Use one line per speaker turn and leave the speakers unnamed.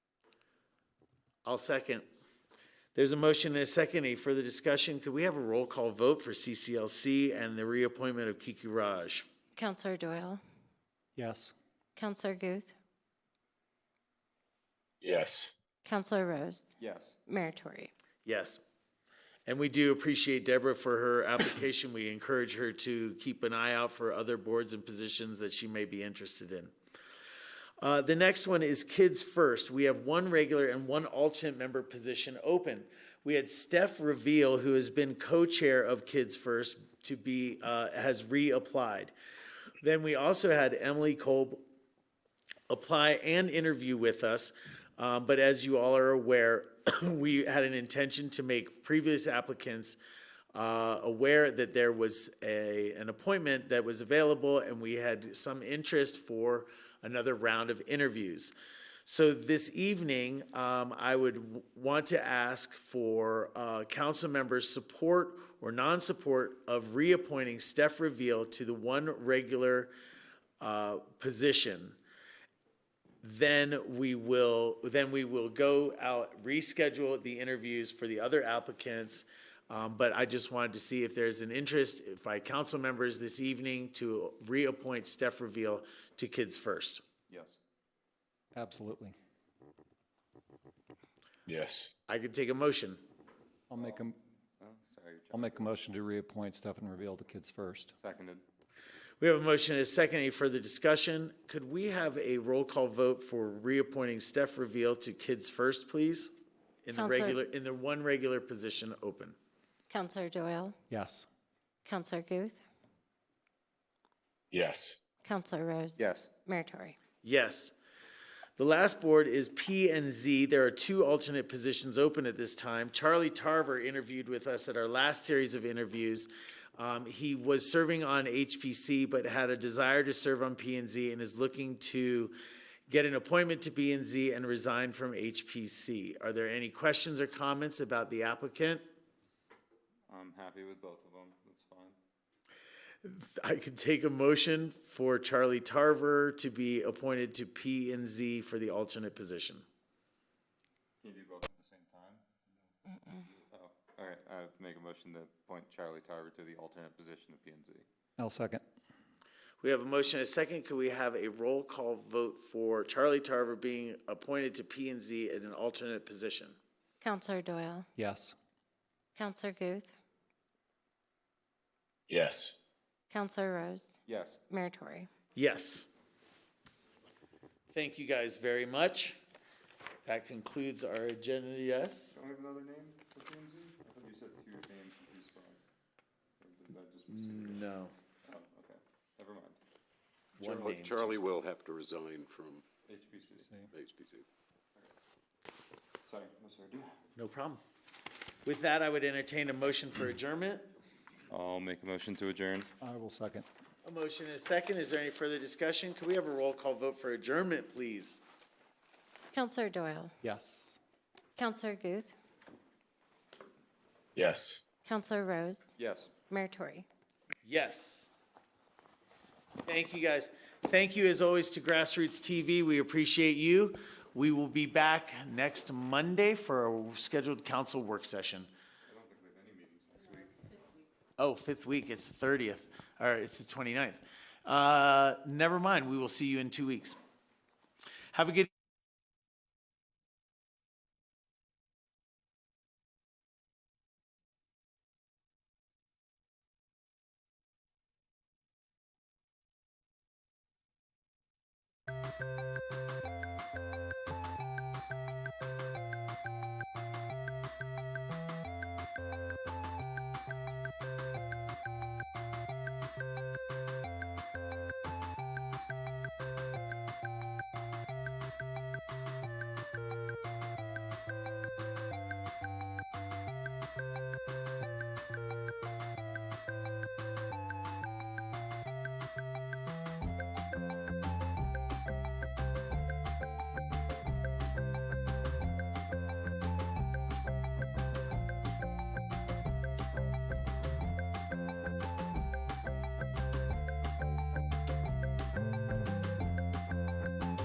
I'll second. There's a motion and a second. Any further discussion? Could we have a roll call vote for CCLC and the reappointment of Kiki Raj?
Counselor Doyle,
Yes.
Counselor Guth,
Yes.
Counselor Rose,
Yes.
Mayor Tory.
Yes. And we do appreciate Deborah for her application. We encourage her to keep an eye out for other boards and positions that she may be interested in. Uh, the next one is Kids First. We have one regular and one alternate member position open. We had Steph Reveal, who has been co-chair of Kids First, to be, uh, has reapplied. Then we also had Emily Kolb apply and interview with us. Um, but as you all are aware, we had an intention to make previous applicants uh, aware that there was a, an appointment that was available and we had some interest for another round of interviews. So this evening, um, I would w- want to ask for uh, council members' support or non-support of reappointing Steph Reveal to the one regular uh, position then we will, then we will go out, reschedule the interviews for the other applicants. Um, but I just wanted to see if there's an interest by council members this evening to reappoint Steph Reveal to Kids First.
Yes. Absolutely.
Yes.
I could take a motion.
I'll make a, I'll make a motion to reappoint Stefan Reveal to Kids First.
Seconded.
We have a motion and a second. Any further discussion? Could we have a roll call vote for reappointing Steph Reveal to Kids First, please? In the
Counselor-
regular, in the one regular position open.
Counselor Doyle,
Yes.
Counselor Guth,
Yes.
Counselor Rose,
Yes.
Mayor Tory.
Yes. The last board is P and Z. There are two alternate positions open at this time. Charlie Tarver interviewed with us at our last series of interviews. Um, he was serving on HPC, but had a desire to serve on P and Z and is looking to get an appointment to P and Z and resign from HPC. Are there any questions or comments about the applicant?
I'm happy with both of them. That's fine.
I could take a motion for Charlie Tarver to be appointed to P and Z for the alternate position.
Can you do both at the same time? Oh, all right. I make a motion to appoint Charlie Tarver to the alternate position of P and Z.
I'll second.
We have a motion and a second. Could we have a roll call vote for Charlie Tarver being appointed to P and Z in an alternate position?
Counselor Doyle,
Yes.
Counselor Guth,
Yes.
Counselor Rose,
Yes.
Mayor Tory.
Yes. Thank you guys very much. That concludes our agenda, yes?
Don't we have another name for P and Z? I thought you said two names and two spots. Or did that just mis-
No.
Oh, okay. Never mind.
One
Charlie-
name.
Charlie will have to resign from
HPC.
HPC.
Sorry, Mr. Adu.
No problem. With that, I would entertain a motion for adjournment.
I'll make a motion to adjourn.
I will second.
A motion and a second. Is there any further discussion? Could we have a roll call vote for adjournment, please?
Counselor Doyle,
Yes.
Counselor Guth,
Yes.
Counselor Rose,
Yes.
Mayor Tory.
Yes. Thank you, guys. Thank you, as always, to Grassroots TV. We appreciate you. We will be back next Monday for a scheduled council work session. I don't think we have any meetings next week. Oh, fifth week, it's the 30th, or it's the 29th. Uh, Never mind, we will see you in two weeks. Have a good